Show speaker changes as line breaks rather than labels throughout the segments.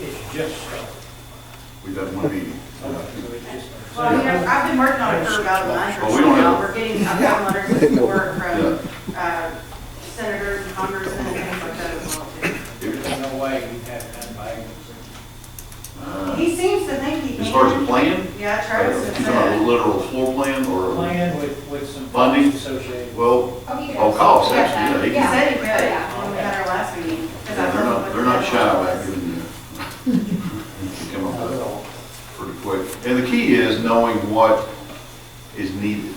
It's just stuff.
We've had one meeting.
So it's just-
Well, you know, I've been working on it for about a month or
Well, Oh, we
so
don't
now.
have-
We're getting, I've gotten letters of support from uh, senators and congressmen and things like that as well. too.
There's no way you have done by April
Uh,
He seems to think he can.
As far as the plan? uh,
Yeah, Travis
You
has
talking a
said.
literal floor plan or,
Plan with, with some
Funding?
funds associated.
well,
Oh, he
Oh,
does.
cost,
Yeah,
actually, yeah, he-
He said he could,
Yeah.
when we had our last meeting. 'cause I
yeah, they're
told
not,
him
they're
what
not
the
shy about
deadline was.
giving you. you Come up
Not
with
at
it
all.
pretty quick. And the key is knowing what is needed.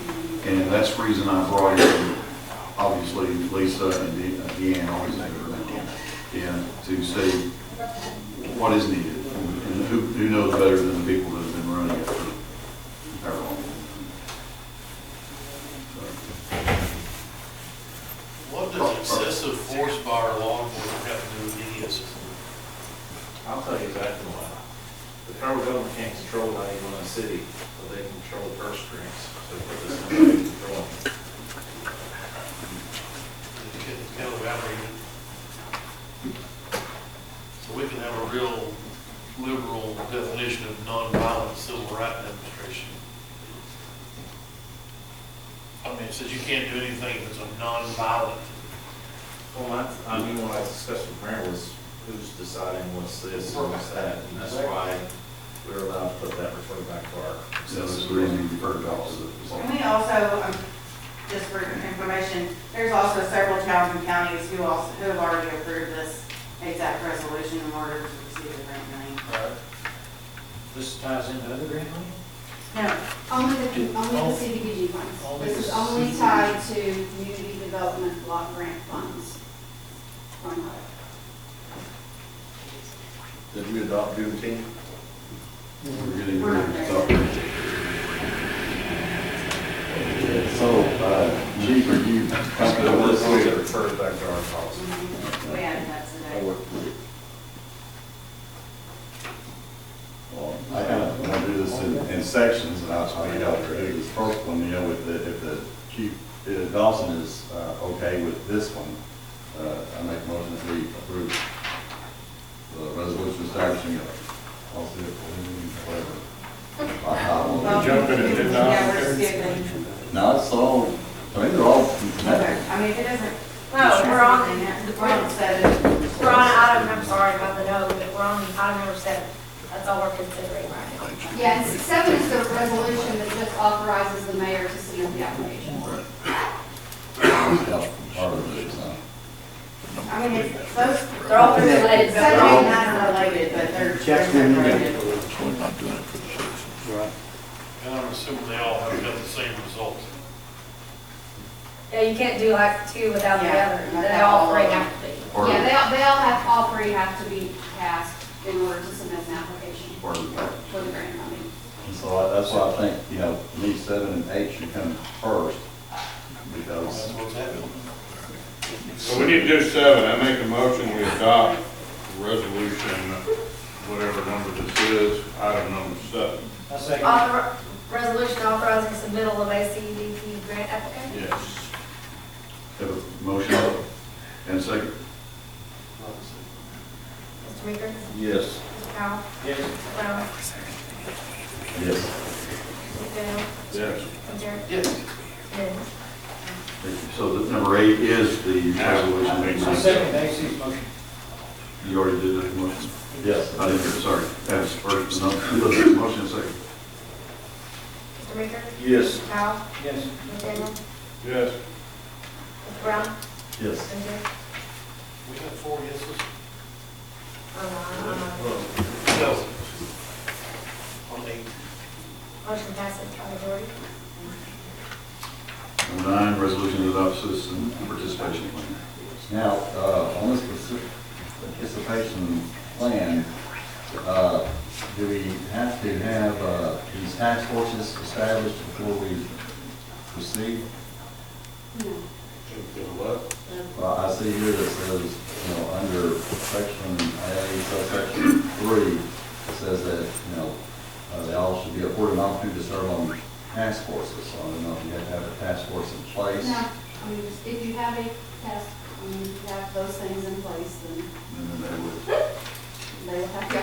And that's the reason I brought in, obviously, Lisa and De- uh, Deanne, always have her name, Deanne, to say what is needed. And who, who knows better than the people that have been running it for however long. So.
What does excessive force by our law enforcement have to do with any of this?
I'll tell you exactly why. The federal government can't control how you run a city, but they can control purse strings. So put this in their control.
It's kind of outrageous. So we can have a real liberal definition of nonviolent civil rights demonstration. I mean, it says you can't do anything that's a nonviolent.
Well, that's, I mean, what I discussed with Mayor was who's deciding what's this and what's that. And that's why we were allowed to put that refer back to our
So that's
excessive
the reason
reason.
you referred to officer.
And we also, um, just for information, there's also several towns and counties who also, who have already approved this exact resolution in order to receive the grant money.
This ties into other grant money?
No,
Only the, only the CDBG funds.
Only
This
the
is only
CDBG.
tied to community development block grant funds. Or not.
Did we adopt Juneteenth?
We're getting ready to stop.
So, uh, Chief, are you comfortable
This is
with
referred back to our policy.
we added that today.
Well, I kind of, when I do this in, in sections, and I'll try to get out there, do this first one, you know, with the, if the Chief uh, Dawson is, uh, okay with this one, uh, I make a motion that we approve the resolution establishing a policy of, whatever. I- I don't know.
Well,
jumping at ten
Yeah,
dollars.
we're skipping.
No, it's all, I mean, they're all connected.
I mean, if it doesn't.
No, we're on,
We're on seven.
we're on item, I'm sorry about the no, but we're on item number seven. That's all we're considering right now.
Yeah, and seven is the resolution that just authorizes the mayor to submit the application.
Yeah, Part of it, so.
I mean, it's close, they're all related, but they're all not related, but they're. Check them
And I'm assuming they all have got the same results.
Yeah, you can't do like two without the
Yeah,
other,
not
they
that
all
all
three
of them.
have to be.
Or-
Yeah, they all, they all have, all three have to be passed in order to submit an application
or the-
for the grant money.
And so I- that's why I think, you know, me seven and eight should come first, because
That's what's happening.
So we need to do seven, I make a motion, we adopt resolution, whatever number this is, item number seven.
I second.
Author, resolution authorizing submittal of a CDBG grant application.
Yes.
Have a motion and a second.
Mr. Meeker?
Yes.
Mr. Powell?
Yes.
Mr. Brown?
yes,
Mr. Daniel?
Yes.
Mr. Jerry?
Yes.
Yes.
Thank you. So the number eight is the
I
resolution.
second Macy's motion.
You already did that motion.
yes.
I didn't hear, sorry. That's first, no, motion and second.
Mr. Meeker?
Yes.
Mr. Powell?
Yes.
Mr. Daniel?
Yes.
Mr. Brown?
Yes.
Mr. Jerry?
We got four yeses.
Uh,
No. On eight.
Motion passes by majority.
Number nine, resolution to adopt citizen participation plan.
Now, uh, on this partic- participation plan, uh, do we have to have, uh, these task forces established before we proceed?
No.
Well, I see here that says, you know, under section A, subsection three, it says that, you know, uh, they all should be afforded an opportunity to serve on task forces. So I don't know if you have to have a task force in place.
No, I mean, if you have a task, I mean, if you have those things in place, then
And then they would
they will have to